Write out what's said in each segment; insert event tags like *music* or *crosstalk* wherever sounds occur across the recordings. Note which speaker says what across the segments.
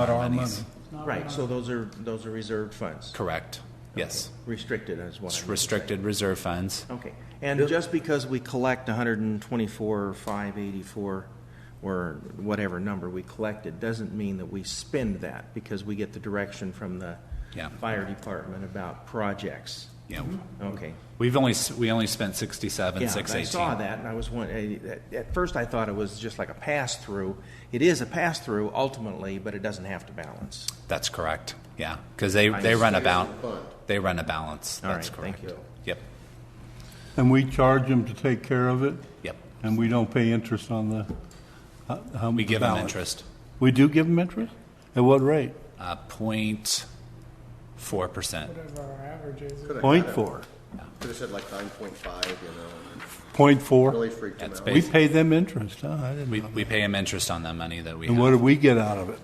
Speaker 1: Not our money.
Speaker 2: Right, so those are, those are reserved funds,
Speaker 3: Correct. Yes.
Speaker 2: restricted as what I
Speaker 3: It's
Speaker 2: meant.
Speaker 3: restricted reserve funds.
Speaker 2: Okay, and just because we collect 124, 584, or whatever number we collected, doesn't mean that we spend that, because we get the direction from the
Speaker 3: Yeah.
Speaker 2: fire department about projects.
Speaker 3: Yeah.
Speaker 2: Okay.
Speaker 3: We've only, s- we only spent 67,
Speaker 2: Yeah, I
Speaker 3: 618.
Speaker 2: saw that, and I was one, at at first I thought it was just like a pass-through. It is a pass-through ultimately, but it doesn't have to balance.
Speaker 3: That's correct. Yeah. Because they, they run a balance.
Speaker 4: Fund.
Speaker 3: They run a balance.
Speaker 2: All
Speaker 3: That's
Speaker 2: right, thank
Speaker 3: correct.
Speaker 2: you.
Speaker 3: Yep.
Speaker 5: And we charge them to take care of it,
Speaker 3: Yep.
Speaker 5: and we don't pay interest on the, how- how
Speaker 3: We
Speaker 5: much
Speaker 3: give them
Speaker 5: balance?
Speaker 3: interest.
Speaker 5: We do give them interest? At what rate?
Speaker 3: Uh, 0.4%.
Speaker 6: Whatever our average is.
Speaker 4: Coulda
Speaker 5: Point
Speaker 4: had it.
Speaker 5: four,
Speaker 4: Could've said like nine point five, you know, and
Speaker 5: point
Speaker 4: it
Speaker 5: four?
Speaker 4: really freaked him
Speaker 3: That's
Speaker 4: out.
Speaker 3: basi-
Speaker 5: We pay them interest, huh? I didn't
Speaker 3: We,
Speaker 5: know.
Speaker 3: we pay them interest on the money that we
Speaker 5: And
Speaker 3: have.
Speaker 5: what do we get out of it?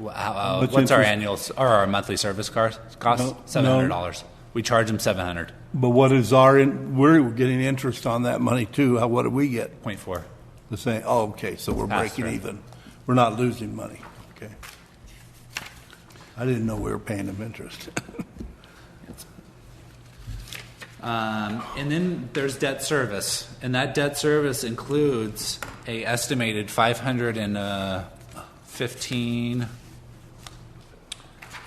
Speaker 3: Wha- how- uh,
Speaker 5: much
Speaker 3: what's our
Speaker 5: interest-
Speaker 3: annual s- or our monthly service cost?
Speaker 5: No,
Speaker 3: Cost
Speaker 5: no.
Speaker 3: seven hundred dollars. We charge them seven hundred
Speaker 5: But what is our, in- we're getting interest on that money too, How- what do we get?
Speaker 3: point four.
Speaker 5: The same, oh, okay, so we're
Speaker 3: Pass
Speaker 5: breaking
Speaker 3: through.
Speaker 5: even, we're not losing money, okay. I didn't know we were paying them interest. *laughs*
Speaker 3: Um, and then there's debt service, and that debt service includes a estimated five hundred and uh, fifteen.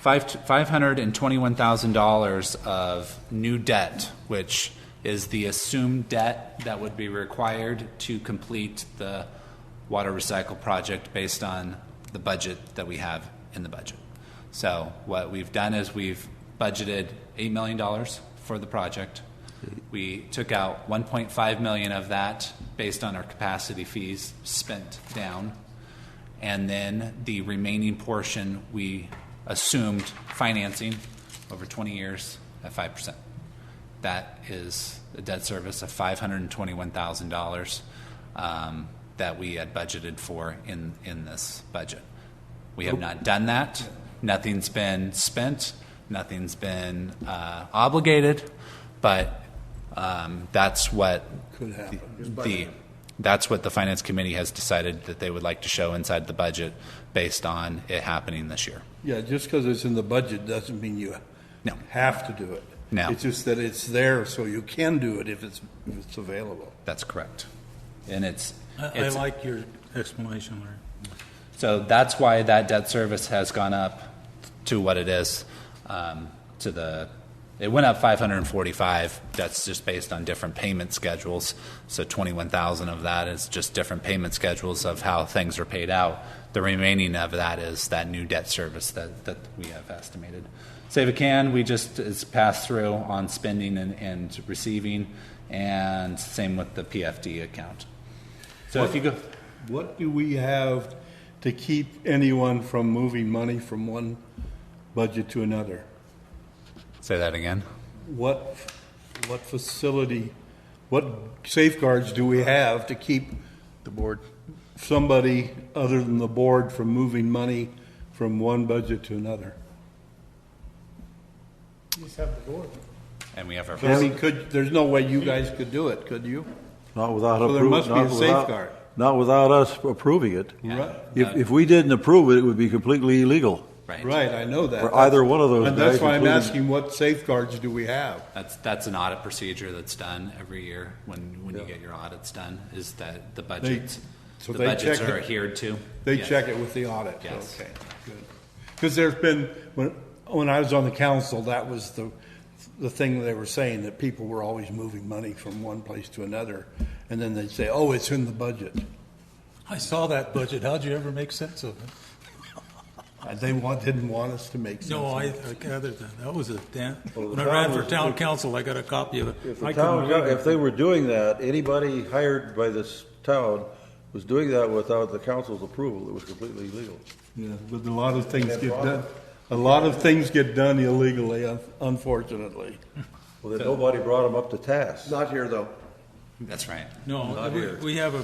Speaker 3: Five five hundred and twenty-one thousand dollars of new debt, which is the assumed debt that would be required to complete the water recycle project based on the budget that we have in the budget. So what we've done is we've budgeted eight million dollars for the project. We took out one point five million of that based on our capacity fees spent down. And then the remaining portion, we assumed financing over 20 years at 5%. That is a debt service of $521,000 um, that we had budgeted for in, in this budget. We have not done that. Nothing's been spent, nothing's been uh, obligated, but um, that's what
Speaker 5: Could happen.
Speaker 3: the, that's what the finance committee has decided that they would like to show inside the budget based on it happening this year.
Speaker 5: Yeah, just because it's in the budget doesn't mean you
Speaker 3: No.
Speaker 5: have to do it.
Speaker 3: No.
Speaker 5: It's just that it's there, so you can do it if it's, if it's available.
Speaker 3: That's correct. And it's,
Speaker 1: I I
Speaker 3: it's,
Speaker 1: like your explanation, Larry.
Speaker 3: so that's why that debt service has gone up to what it is, um, to the, it went up five hundred and forty-five. That's just based on different payment schedules. So twenty-one thousand of that is just different payment schedules of how things are paid out. The remaining of that is that new debt service that, that we have estimated. Save a can, we just, it's passed through on spending and, and receiving, and same with the PFD account. So if you go,
Speaker 5: What do we have to keep anyone from moving money from one budget to another?
Speaker 3: say that again.
Speaker 5: What, what facility, what safeguards do we have to keep? The board. Somebody other than the board from moving money from one budget to another?
Speaker 6: You just have the board.
Speaker 3: And we have our.
Speaker 5: I mean, could, there's no way you guys could do it, could you?
Speaker 7: Not without
Speaker 5: So there
Speaker 7: appro-
Speaker 5: must be
Speaker 7: not
Speaker 5: a
Speaker 7: without-
Speaker 5: safeguard.
Speaker 7: Not without us approving it.
Speaker 5: Right.
Speaker 7: If, if we didn't approve it, it would be completely illegal.
Speaker 5: Right, I know that.
Speaker 7: Or either one of those
Speaker 5: And that's
Speaker 7: guys,
Speaker 5: why I'm
Speaker 7: including-
Speaker 5: asking, what safeguards do we have?
Speaker 3: That's, that's an audit procedure that's done every year when, when you get your audits done, is that the budgets,
Speaker 5: so
Speaker 3: the
Speaker 5: they
Speaker 3: budgets
Speaker 5: check
Speaker 3: are
Speaker 5: it.
Speaker 3: adhered to.
Speaker 5: They
Speaker 3: Yes.
Speaker 5: check it with the audit?
Speaker 3: Yes.
Speaker 5: Okay, good. Because there's been, when, when I was on the council, that was the, the thing they were saying, that people were always moving money from one place to another. And then they'd say, oh, it's in the budget.
Speaker 1: I saw that budget. How'd you ever make sense of it?
Speaker 5: Uh, They want, didn't want us to make sense.
Speaker 1: No,
Speaker 5: of
Speaker 1: I,
Speaker 5: it.
Speaker 1: I gathered that. That was a damn,
Speaker 7: Well, the
Speaker 1: when I ran for
Speaker 7: problem is
Speaker 1: town
Speaker 7: if-
Speaker 1: council, I got a copy of it.
Speaker 7: If
Speaker 1: I couldn't
Speaker 7: the town,
Speaker 1: read
Speaker 7: got-
Speaker 1: it.
Speaker 7: if they were doing that, anybody hired by this town was doing that without the council's approval. It was completely illegal.
Speaker 5: Yeah, but a lot of things get done, a lot of things get done illegally, un- unfortunately.
Speaker 7: Well, then nobody brought them up to task.
Speaker 4: Not here, though.
Speaker 3: That's right.
Speaker 1: No, we, we have a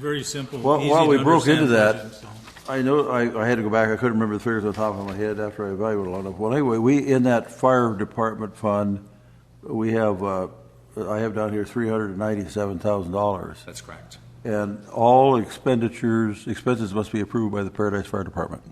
Speaker 1: very simple,
Speaker 7: While-
Speaker 1: easy
Speaker 7: while we
Speaker 1: to
Speaker 7: broke into
Speaker 1: understand
Speaker 7: that-
Speaker 1: budget, so.
Speaker 7: I know, I, I had to go back, I couldn't remember the figures on top of my head after I evaluated a lot of, well, anyway, we, in that fire department fund, we have, uh, I have down here three hundred and ninety-seven thousand dollars.
Speaker 3: That's correct.
Speaker 7: And all expenditures, expenses must be approved by the Paradise Fire Department.